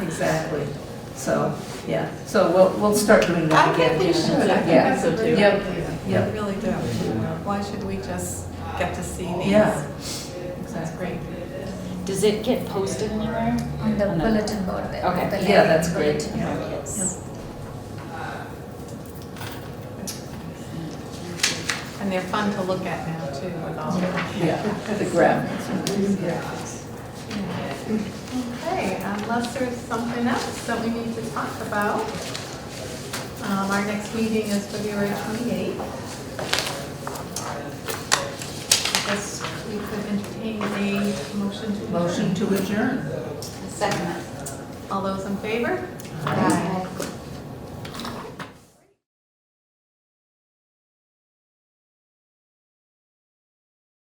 exactly. So, yeah, so we'll, we'll start doing that I again. think we should, I think Yeah. that's a really good Yep. idea. I Yep. really do. Why should we just get to see these? Yeah. That's great. Does it get posted anywhere? On the bulletin board there. Okay. the Yeah, that's bulletin great. board. Yes. And they're fun to look at now too with all the. Yeah, the graphics. Yeah. Okay, unless there's something else that we need to talk about. Um, Our next meeting is February 28th. I guess we could entertain a motion to. Motion to adjourn. Second. All those in favor? Aye.